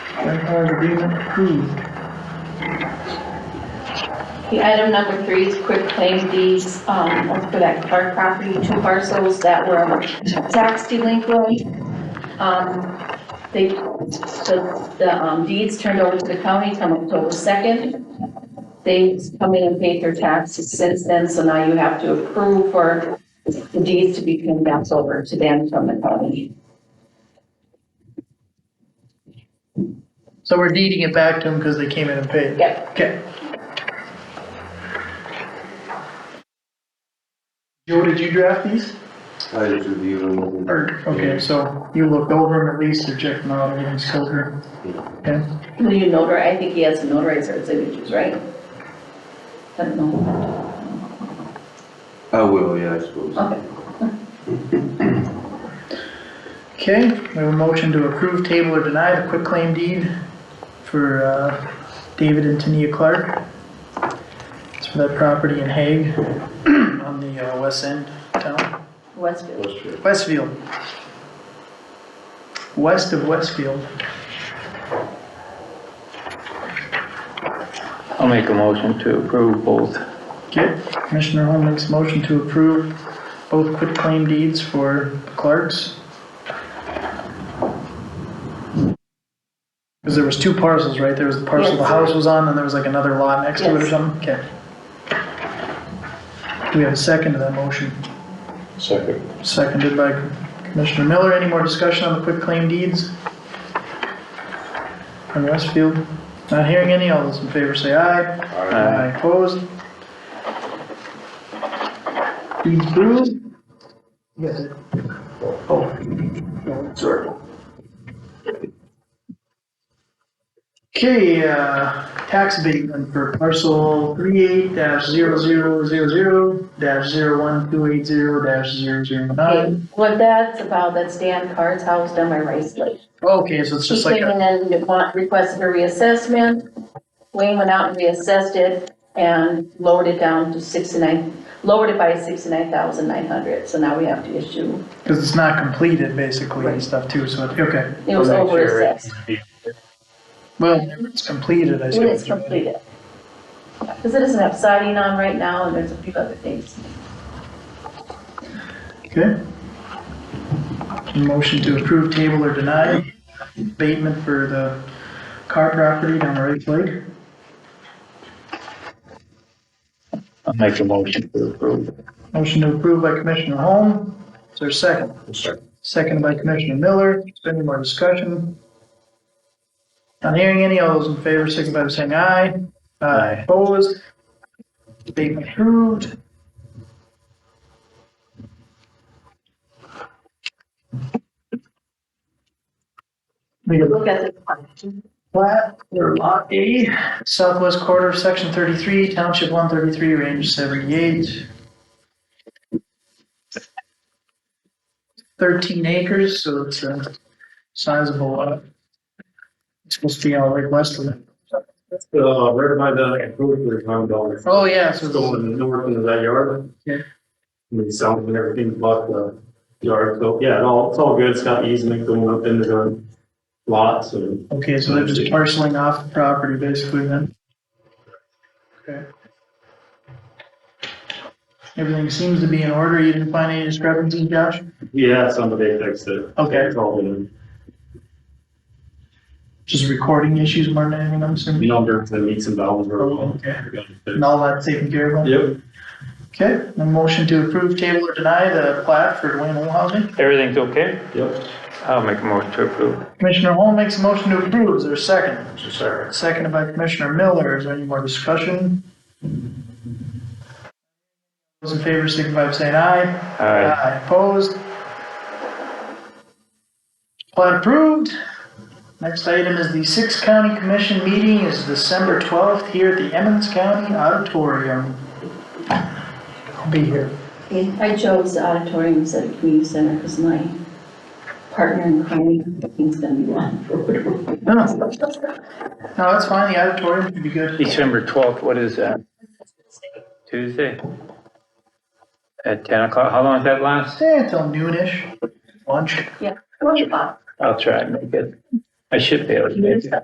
Manpower agreement approved. The item number three is quick claim deeds, um, for that Clark property, two parcels that were um, tax delinquent. Um, they, the, the um, deeds turned over to the county come October second. They come in and paid their taxes since then, so now you have to approve for the deeds to be condensed over to them from the county. So we're deeding it back to them because they came in and paid. Yep, Okay. Joe, did you draft these? I just reviewed them. Or, okay, so you looked over them at least or checked them out, everything's still here? Okay, will you notarize, I think he has to notarize our signatures, right? I don't know, I will, yeah, I suppose. okay. okay, we have a motion to approve, table, or deny the quitclaim deed for, uh, David and Tania Clark. It's for that property in Hague on the, uh, west end of town, Westfield. Westfield. West of Westfield. I'll make a motion to approve both. Okay, Commissioner Holm makes a motion to approve both quitclaim deeds for Clark's. Because there was two parcels, right? There was the parcel the Yes. house was on, and there was like another lot next to it or Yes. something? Okay. Do we have a second to that motion? Second. Seconded by Commissioner Miller. Any more discussion on the quitclaim deeds? From Westfield? Not hearing any. All those in favor say aye. Aye. Aye, opposed? Deeds approved? Yes. Sorry. Okay, uh, tax abatement for parcel 38 dash 0000 dash 01280 dash 009. What that's about, that's Dan Carr's house down by Rice Lake. Okay, so it's He just like, came a- in and want- requested a reassessment. Wayne went out and reassessed it and lowered it down to 69, lowered it by 69,900. So now we have to issue, cause it's not completed basically and Right. stuff too, so, it- okay. it was Make over sure it- assessed Well, it's completed, I suppose. when it's completed. Because it doesn't have siding on right now and there's a few other things. Okay. Motion to approve, table, or deny abatement for the car property down the right Lake. I'll make a motion to approve. Motion to approve by Commissioner Holm. Is there a second? Second. Second by Commissioner Miller. Is there any more discussion? Not hearing any. All those in favor, signify by saying aye. Uh, Aye. Opposed? Abatement approved. We have Look at the, plat for lot A, southwest quarter, section thirty-three, township one thirty-three, range seventy-eight. Thirteen acres, so it's a sizable lot. It's supposed to be out right west of it. Uh, right by the grocery common dollar. Oh, yeah, so it's- Just going north into that yard. Yeah. I mean, sound and everything but the yard, so, yeah, it's all, it's all good, it's got easement going up into the lots and. okay, so they're just parceling off the property basically then. Okay. Everything seems to be in order. You didn't find any discrepancies, Josh? Yeah, somebody fixed it. Okay. It's all been Just recording issues more than anything, I'm assuming? numbered to meets and bounds. where we want. Okay. And all that's taken care of? then? Yep, Okay, a motion to approve, table, or deny the plat for Dwayne Olhousing. Everything's okay? yep. I'll make a motion to approve. Commissioner Holm makes a motion to approve, is there a second? Sorry. Seconded by Commissioner Miller, is there any more discussion? Those in favor signify by saying aye. Aye. Opposed? Plat approved. Next item is the sixth county commission meeting is December 12th here at the Emmons County Auditorium. I'll be here. I chose the auditorium instead of community center because my partner in crime is gonna be one. No, no, that's fine, the auditorium should be good. December 12th, what is that? Tuesday? At 10 o'clock, how long does that last? Stay until noonish, lunch. Yeah. Well, you- I'll try and make it. I should be able to make it.